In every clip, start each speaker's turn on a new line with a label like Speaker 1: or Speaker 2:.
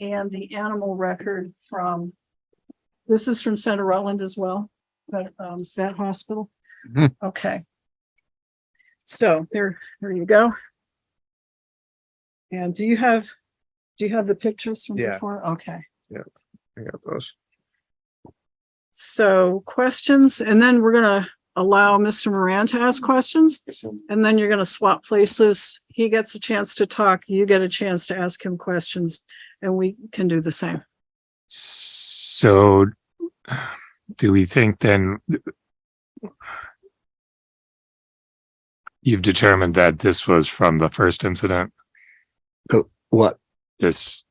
Speaker 1: and the animal record from, this is from Center Rutland as well, but, um, that hospital.
Speaker 2: Mhm.
Speaker 1: Okay. So there, there you go. And do you have, do you have the pictures from
Speaker 2: Yeah.
Speaker 1: before? Okay.
Speaker 2: I got those.
Speaker 1: So questions, and then we're gonna allow Mr. Moran to ask questions. And then you're gonna swap places. He gets a chance to talk, you get a chance to ask him questions, and we can do the same.
Speaker 2: So do we think then you've determined that this was from the first incident,
Speaker 3: What,
Speaker 2: this?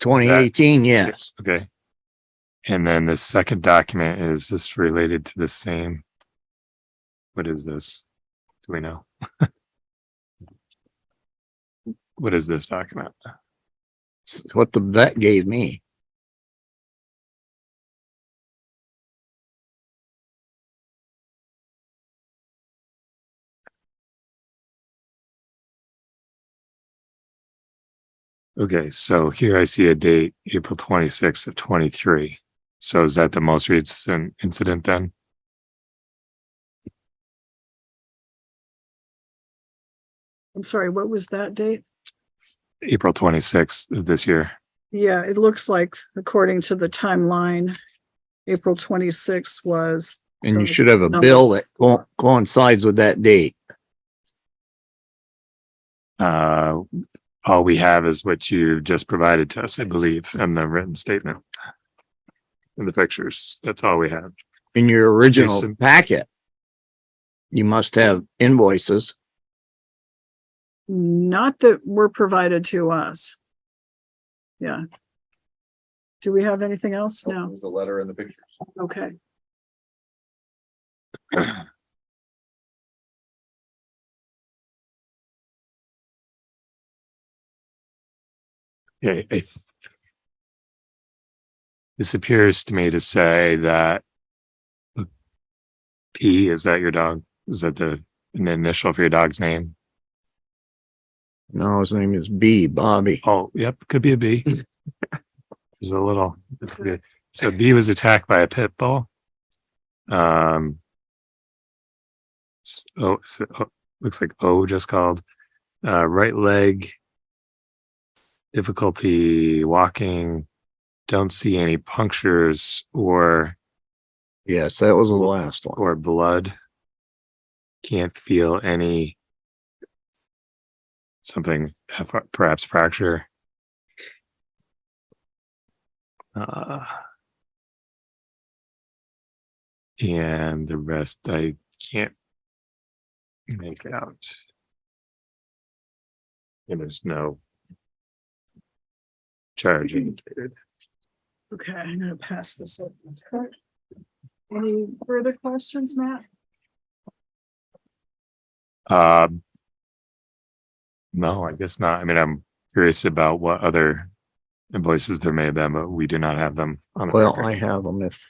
Speaker 3: twenty eighteen? Yes.
Speaker 2: Okay. And then the second document, is this related to the same? What is this? Do we know? What is this document?
Speaker 3: It's What the vet gave me.
Speaker 2: Okay, so here I see a date, April twenty-sixth of twenty-three. So is that the most recent incident then?
Speaker 1: I'm sorry, what was that date?
Speaker 2: April twenty-sixth of this year?
Speaker 1: Yeah, it looks like according to the timeline, April twenty-sixth was,
Speaker 3: And you
Speaker 1: So,
Speaker 3: should have a
Speaker 1: no.
Speaker 3: bill that co- coincides with that date.
Speaker 2: Uh, all we have is what you just provided to us, I believe, and the written statement. And the pictures, that's all we have.
Speaker 3: In your original
Speaker 2: Jason.
Speaker 3: packet. You must have invoices.
Speaker 1: not that were provided to us. Yeah. Do we have anything else? No.
Speaker 4: Oh, There's a letter in the picture.
Speaker 1: Okay.
Speaker 2: Yeah, I th- This appears to me to say that P, is that your dog? Is that the an initial for your dog's name?
Speaker 3: No, his name is B, Bobby.
Speaker 2: Oh, yep, could be a B. There's a little. So B was attacked by a pit bull. Um. s- Oh, so, oh, looks like O just called. Uh, right leg. Difficulty walking. Don't see any punctures or
Speaker 3: Yes, that was the last one.
Speaker 2: or blood. Can't feel any. Something f- perhaps fracture. Uh, and the rest I can't make out. And there's no charge indicated.
Speaker 1: Okay, I'm gonna pass this up. Any further questions, Matt?
Speaker 2: Um, no, I guess not. I mean, I'm curious about what other invoices there may have been, but we do not have them on. the
Speaker 3: Well,
Speaker 2: record.
Speaker 3: I have them if.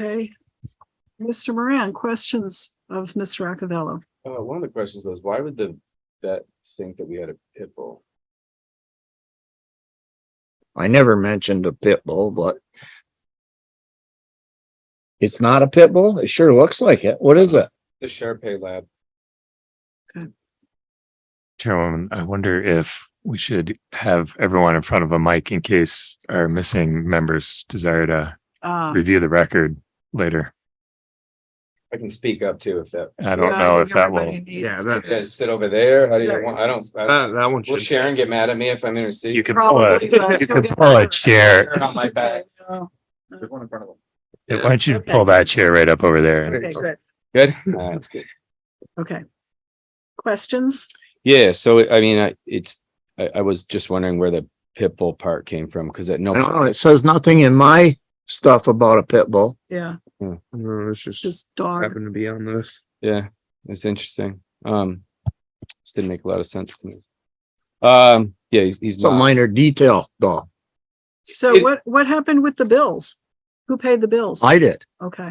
Speaker 1: Okay. Mr. Moran, questions of Ms. Roccavello?
Speaker 4: Uh, one of the questions was, why would the vet think that we had a pit bull?
Speaker 3: I never mentioned a pit bull, but. It's not a pit bull? It sure looks like it. What is it?
Speaker 4: The Sharpei lab,
Speaker 2: Chairwoman, I wonder if we should have everyone in front of a mic in case our missing members desire to
Speaker 1: Uh,
Speaker 2: review the record later.
Speaker 4: I can speak up too if that,
Speaker 2: I don't know if that will,
Speaker 1: everybody needs-
Speaker 4: you guys sit over there, how do you want, I don't, I-
Speaker 3: that one
Speaker 4: will Sharon get mad at me if I'm in her seat?
Speaker 2: you could pull a,
Speaker 1: Probably, but-
Speaker 2: you could pull a chair.
Speaker 4: Turn on my back.
Speaker 1: Oh,
Speaker 4: There's one in front of them.
Speaker 2: Why don't you pull that chair right up over there?
Speaker 1: Okay, good.
Speaker 4: Good? Nah, That's good.
Speaker 1: Okay. Questions?
Speaker 4: Yeah, so I mean, I, it's, I, I was just wondering where the pit bull part came from, because at no.
Speaker 3: I don't know. It says nothing in my stuff about a pit bull.
Speaker 1: Yeah,
Speaker 5: It's just
Speaker 1: just dog.
Speaker 5: happened to be on this.
Speaker 4: Yeah, it's interesting. Um, this didn't make a lot of sense to me. Um, yeah, he's, he's
Speaker 3: It's a
Speaker 4: not.
Speaker 3: minor detail, though.
Speaker 1: So
Speaker 4: It-
Speaker 1: what, what happened with the bills? Who paid the bills?
Speaker 3: I did,
Speaker 1: Okay,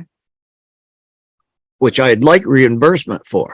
Speaker 3: which I'd like reimbursement for.